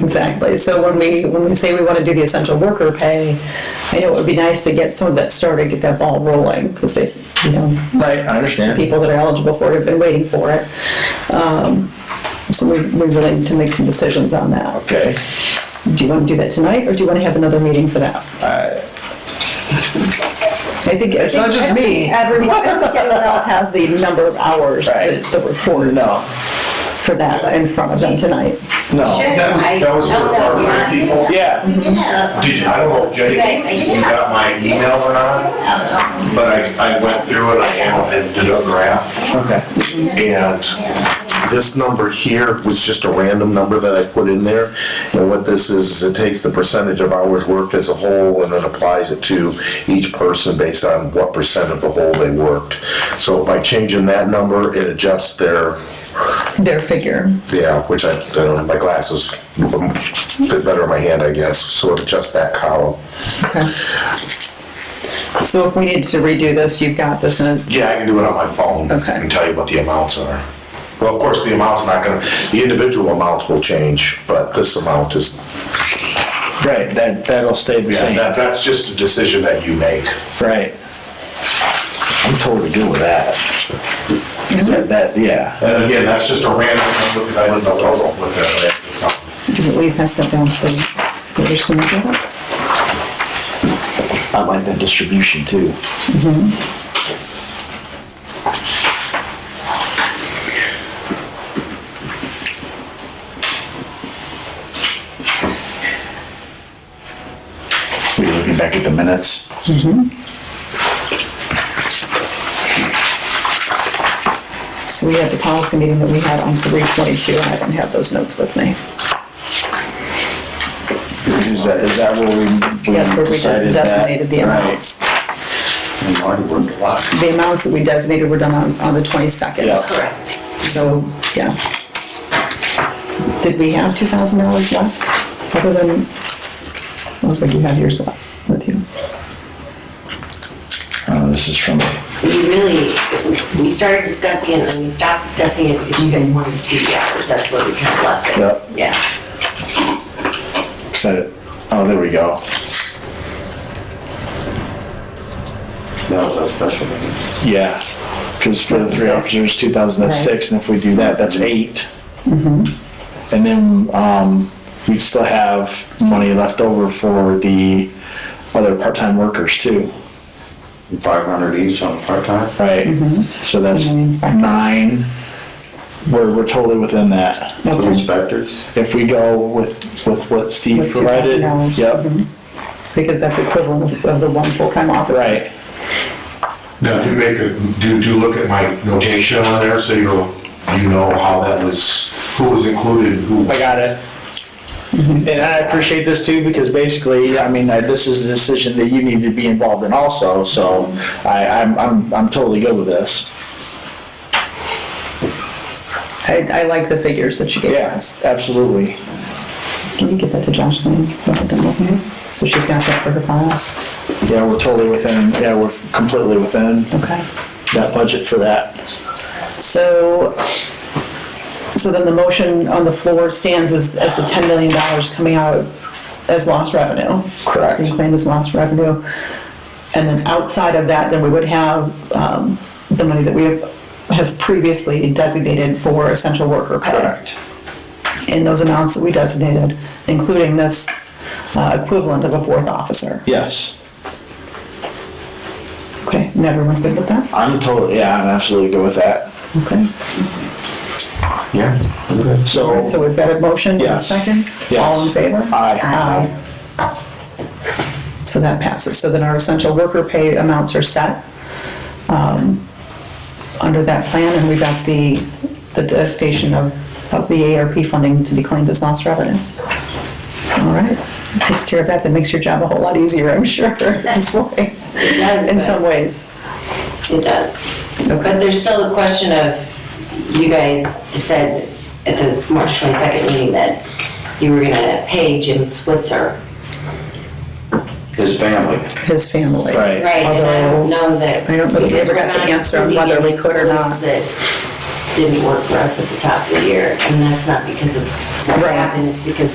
Exactly. So when we, when we say we want to do the essential worker pay, I know it would be nice to get some of that started, get that ball rolling, because they, you know, Right, I understand. people that are eligible for it have been waiting for it. Um, So we, we really need to make some decisions on that. Okay. Do you want to do that tonight, or do you want to have another meeting for that? I think. Uh, It's not just me. Everyone, I think everyone else has the number of hours, Right. that the report No, for that in front of them tonight. no. Oh, That was, that was for part-time people. Yeah. We did have Did, you- I don't know if Jenny, you got my email or not, a- but I, I went through it, I am- and did a graph. Okay. And this number here was just a random number that I put in there. And what this is, it takes the percentage of hours worked as a whole and then applies it to each person based on what percent of the whole they worked. So by changing that number, it adjusts their Their figure. Yeah, which I, I don't have my glasses um, fit better in my hand, I guess. So it adjusts that column. Okay. So if we need to redo this, you've got this in, a- Yeah, I can do it on my phone Okay. and tell you what the amounts are. Well, of course, the amount's not gonna, the individual amounts will change, but this amount is, Right, that, that'll stay the yeah, same. that, that's just a decision that you make. Right. I'm totally good with that. That- That, yeah. And again, that's just a random number because I don't know what I'm looking at. did we pass that down so we're just gonna do it? I like that distribution too. Were you looking back at the minutes? So we had the policy meeting that we had on three twenty-two, and I don't have those notes with me. Is that, is that where we- Yes, where we we decided just that? designated the Right. amounts. And Marty worked a lot. The amounts that we designated were done on, on the twenty-second. Yeah. Correct. So, yeah. Did we have two thousand dollars left, other than, I don't think you have yours left with you. Uh, this is from, We really, we started discussing it and then we stopped discussing it because you guys wanted to see the hours. That's where we kind of left Yeah. it. Yeah. set it, oh, there we go. That was a special meeting. Yeah, because for the three officers, two thousand and six, and if we do that, that's Mm-hmm. eight. And then, um, we'd still have money left over for the other part-time workers too, Five hundred each on part-time? right? So that's Mm-hmm. And the inspectors. nine, we're, we're totally within that. For the Okay. inspectors? If we go with, with what Steve With provided, $2,000. yep, Because that's equivalent of- of the one full-time officer. right, Now, do make a, do, do look at my notation on there so you'll, you know how that was, who was included, and who. I got it. Mm-hmm. And I appreciate this too, because basically, I mean, I- this is a decision that you need to be involved in also, so I, I'm, I'm, I'm totally good with this. I, I like the figures that you gave Yes, us. absolutely. Can you give that to Jocelyn? Let her demo it. So she's got that for her file? Yeah, we're totally within, yeah, we're completely within Okay. that budget for that. So, so then the motion on the floor stands as, as the $10 million coming out as lost revenue. Correct. Being claimed as lost revenue. And then outside of that, then we would have um, the money that we have- have previously designated for essential worker pay. in those amounts that we designated, including this uh, equivalent of a fourth officer. Yes, Okay, and everyone's good with that? I'm totally, yeah, I'm absolutely good with that. Okay. Yeah. All So, right, so we've got a motion and a Yes. second? All in Yes. favor? Aye. So that passes. So then our essential worker pay amounts are set um, under that plan, and we got the, the designation of, of the ARP funding to be claimed as lost revenue. All right, takes care of that. That makes your job a whole lot easier, I'm sure, this way. It does, in but- some ways. It does. Okay. But there's still the question of, you guys said at the March 22nd meeting that you were gonna pay Jim Switzer. His family. His family. Right. Right, and I don't know that. I don't know that we ever got the because we're not answer on whether we including could or not. employees That didn't work for us at the top of the year, and that's not because of what Right. happened, it's because